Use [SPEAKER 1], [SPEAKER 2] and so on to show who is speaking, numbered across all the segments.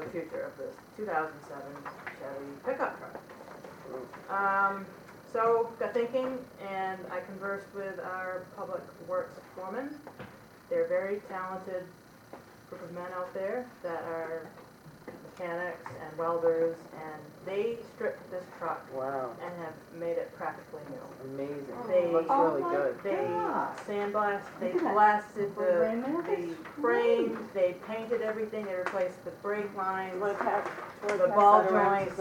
[SPEAKER 1] the future of this 2007 Chevy pickup truck. Um, so got thinking and I conversed with our public works foreman. They're a very talented group of men out there that are mechanics and welders and they stripped this truck
[SPEAKER 2] Wow,
[SPEAKER 1] and have made it practically new.
[SPEAKER 2] amazing.
[SPEAKER 1] They-
[SPEAKER 2] Looks
[SPEAKER 3] Oh
[SPEAKER 2] really
[SPEAKER 3] my
[SPEAKER 2] good.
[SPEAKER 1] They
[SPEAKER 3] God.
[SPEAKER 1] sandblasted, they
[SPEAKER 3] Look at that.
[SPEAKER 1] blasted the
[SPEAKER 3] Brand new?
[SPEAKER 1] the frames, they painted everything, they replaced the brake lines,
[SPEAKER 4] The
[SPEAKER 1] The ball joints,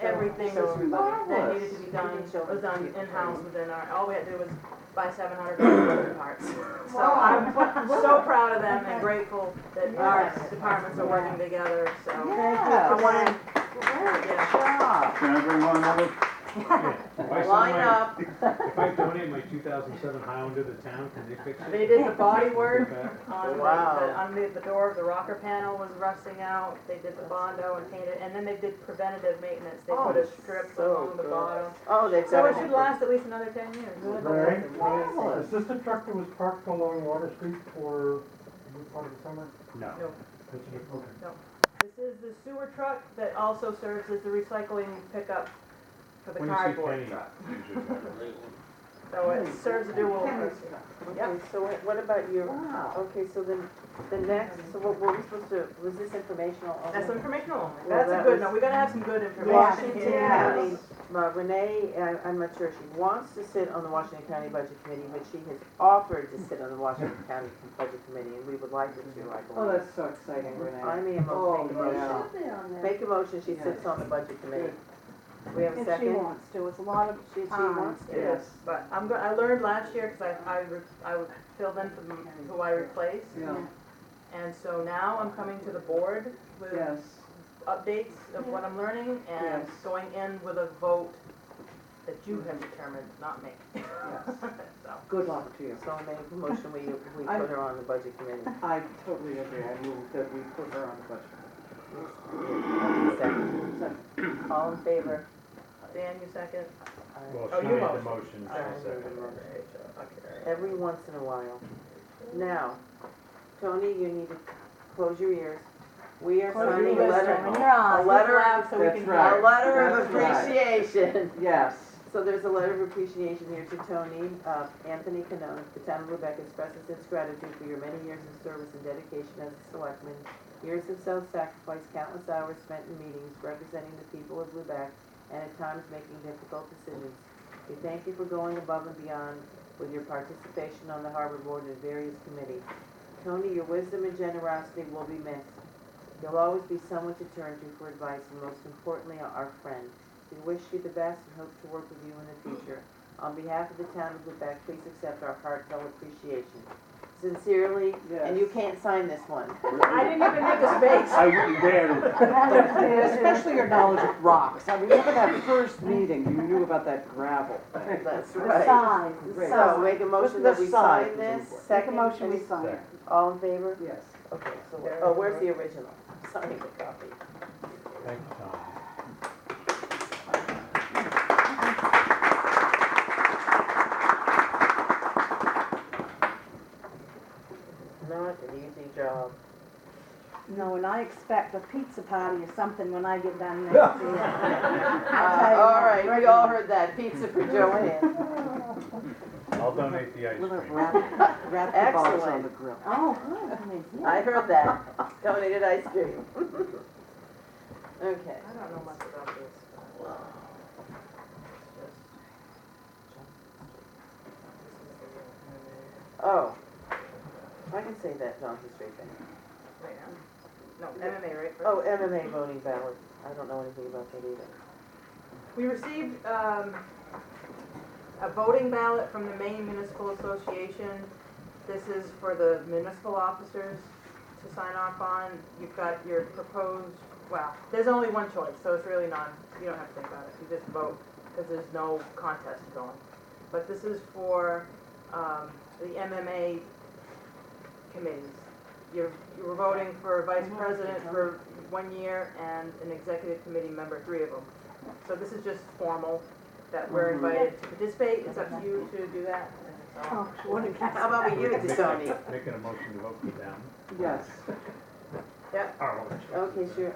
[SPEAKER 1] everything
[SPEAKER 4] Everything
[SPEAKER 1] was-
[SPEAKER 4] was
[SPEAKER 1] that
[SPEAKER 2] Marvelous.
[SPEAKER 1] needed to be done,
[SPEAKER 4] You can show
[SPEAKER 1] was done
[SPEAKER 4] them.
[SPEAKER 1] in-house within our, all we had to do was buy seven hundred dollars parts. So I'm
[SPEAKER 3] Wow. What- what-
[SPEAKER 1] so proud of them and grateful that our
[SPEAKER 3] Yes.
[SPEAKER 1] departments are working together, so.
[SPEAKER 3] Yes.
[SPEAKER 1] I wanted,
[SPEAKER 3] Great
[SPEAKER 1] yeah,
[SPEAKER 3] job.
[SPEAKER 5] Can I bring one over?
[SPEAKER 1] line up,
[SPEAKER 6] If I donate my two thousand seven Highlander to the town, can they fix it?
[SPEAKER 1] they did the body work
[SPEAKER 6] Back?
[SPEAKER 1] on the,
[SPEAKER 2] Wow.
[SPEAKER 1] the- underneath the door, the rocker panel was rusting out, they did the bondo and painted, and then they did preventative maintenance, they
[SPEAKER 2] Oh,
[SPEAKER 1] put a strip
[SPEAKER 2] so
[SPEAKER 1] along the
[SPEAKER 2] good.
[SPEAKER 1] bottom.
[SPEAKER 2] Oh, they've
[SPEAKER 1] So
[SPEAKER 2] got
[SPEAKER 1] it should last at least another ten years.
[SPEAKER 7] Larry?
[SPEAKER 2] Marvelous.
[SPEAKER 7] Is this the truck that was parked along Water Street for a good part of the summer?
[SPEAKER 6] No.
[SPEAKER 1] No.
[SPEAKER 7] That's it, okay.
[SPEAKER 1] This is the sewer truck that also serves as the recycling pickup for the
[SPEAKER 6] When you see
[SPEAKER 1] cardboard
[SPEAKER 6] Penny,
[SPEAKER 1] truck.
[SPEAKER 6] you should have it.
[SPEAKER 1] So it
[SPEAKER 4] Mm.
[SPEAKER 1] serves a dual purpose.
[SPEAKER 4] Okay, so what- what about your,
[SPEAKER 3] Wow.
[SPEAKER 4] okay, so then, the next, so what were we supposed to, was this informational only?
[SPEAKER 1] That's informational only.
[SPEAKER 4] Well,
[SPEAKER 1] That's a
[SPEAKER 4] that
[SPEAKER 1] good,
[SPEAKER 4] was-
[SPEAKER 1] no, we gotta have some good information
[SPEAKER 4] Washington
[SPEAKER 1] here.
[SPEAKER 4] County, uh, Renee, I- I'm not sure, she wants to sit on the Washington County Budget Committee, but she has offered to sit on the Washington County Budget Committee, and we would like her to, I
[SPEAKER 2] Oh,
[SPEAKER 4] believe.
[SPEAKER 2] that's so exciting,
[SPEAKER 4] I
[SPEAKER 2] Renee.
[SPEAKER 4] may have
[SPEAKER 2] Oh,
[SPEAKER 4] make a motion.
[SPEAKER 2] yeah.
[SPEAKER 3] Should be on there.
[SPEAKER 4] Make a motion, she sits on the Budget Committee. We have a
[SPEAKER 3] If
[SPEAKER 4] second?
[SPEAKER 3] she wants to, it's a lot of
[SPEAKER 4] She, she
[SPEAKER 3] time.
[SPEAKER 4] wants to.
[SPEAKER 2] Yes.
[SPEAKER 1] But I'm go, I learned last year, cause I, I, re- I would fill in for m- who I replaced.
[SPEAKER 2] Yeah,
[SPEAKER 1] And so now I'm coming to the board with
[SPEAKER 2] yes,
[SPEAKER 1] updates of what I'm learning and
[SPEAKER 2] Yes.
[SPEAKER 1] going in with a vote that you have determined, not me.
[SPEAKER 2] yes.
[SPEAKER 1] So,
[SPEAKER 2] Good luck to you.
[SPEAKER 4] So I make a motion, we, we
[SPEAKER 2] I-
[SPEAKER 4] put her on the Budget Committee.
[SPEAKER 2] I totally agree. I move that we put her on the budget.
[SPEAKER 4] Second. All in favor?
[SPEAKER 1] Dan, you second?
[SPEAKER 6] Well,
[SPEAKER 1] Oh,
[SPEAKER 6] she
[SPEAKER 1] you
[SPEAKER 6] made the
[SPEAKER 1] lost.
[SPEAKER 6] motion,
[SPEAKER 1] I
[SPEAKER 6] she seconded it.
[SPEAKER 1] Okay.
[SPEAKER 4] Every once in a while. Now, Tony, you need to close your ears. We are
[SPEAKER 3] Close your
[SPEAKER 4] signing a
[SPEAKER 3] ears,
[SPEAKER 4] letter,
[SPEAKER 3] Tony. You're on.
[SPEAKER 4] A letter of-
[SPEAKER 1] Ah, so we
[SPEAKER 2] That's
[SPEAKER 1] can-
[SPEAKER 2] right.
[SPEAKER 4] a letter of
[SPEAKER 2] That's right.
[SPEAKER 4] appreciation.
[SPEAKER 2] Yes.
[SPEAKER 4] So there's a letter of appreciation here to Tony. Uh, Anthony Canone, the town of Lubec expresses its gratitude for your many years of service and dedication as a selectman. Years of self-sacrifice, countless hours spent in meetings representing the people of Lubec and at times making difficult decisions. We thank you for going above and beyond with your participation on the harbor board and various committees. Tony, your wisdom and generosity will be missed. You'll always be someone to turn to for advice and most importantly, our friend. We wish you the best and hope to work with you in the future. On behalf of the town of Lubec, please accept our heartfelt appreciation. Sincerely, and you
[SPEAKER 2] Yes.
[SPEAKER 4] can't sign this one.
[SPEAKER 1] I didn't even make a space.
[SPEAKER 5] I wouldn't dare.
[SPEAKER 2] Especially your knowledge of rocks. I remember that first meeting, you knew about that gravel.
[SPEAKER 4] That's
[SPEAKER 3] The
[SPEAKER 4] right.
[SPEAKER 3] size, the
[SPEAKER 2] Right.
[SPEAKER 4] So
[SPEAKER 3] size.
[SPEAKER 4] make a motion
[SPEAKER 2] the
[SPEAKER 4] that we
[SPEAKER 2] size
[SPEAKER 4] sign
[SPEAKER 2] is
[SPEAKER 4] this.
[SPEAKER 2] important.
[SPEAKER 3] Make a
[SPEAKER 4] Second,
[SPEAKER 3] motion, we
[SPEAKER 4] any-
[SPEAKER 3] sign it.
[SPEAKER 4] all in favor?
[SPEAKER 2] Yes.
[SPEAKER 4] Okay, so, oh, where's the original? I'm Signing the copy.
[SPEAKER 6] Thank you, Tom.
[SPEAKER 4] Not an easy job.
[SPEAKER 3] No, and I expect a pizza party or something when I get done next year.
[SPEAKER 4] Uh, all right, we all heard that. Pizza for Joanne.
[SPEAKER 6] I'll donate the ice
[SPEAKER 2] We'll
[SPEAKER 6] cream.
[SPEAKER 2] have wrap, wrap the balls on the grill.
[SPEAKER 3] Oh, good, I mean, yeah.
[SPEAKER 4] I heard that. Donated ice cream. Okay.
[SPEAKER 1] I don't know much about this. but-
[SPEAKER 4] Oh, I can say that Johnson Street thing.
[SPEAKER 1] Wait, huh? No, MMA, right?
[SPEAKER 4] Oh, MMA voting ballot. I don't know anything about that either.
[SPEAKER 1] We received um, a voting ballot from the Maine Municipal Association. This is for the municipal officers to sign off on. You've got your proposed, well, there's only one choice, so it's really not, you don't have to think about it. You just vote, because there's no contest going. But this is for um, the MMA committees. You're, you were voting for vice president for one year and an executive committee member, three of them. So this is just formal, that we're
[SPEAKER 2] Mhm.
[SPEAKER 1] invited to participate, it's up to you to do that. and so-
[SPEAKER 3] Oh, what a guy.
[SPEAKER 4] How about we give
[SPEAKER 6] We
[SPEAKER 4] it
[SPEAKER 6] can
[SPEAKER 4] to
[SPEAKER 6] make
[SPEAKER 4] Tony?
[SPEAKER 6] a- Make an emotion to vote for them.
[SPEAKER 2] Yes.
[SPEAKER 6] Our own choices.
[SPEAKER 4] Okay, sure.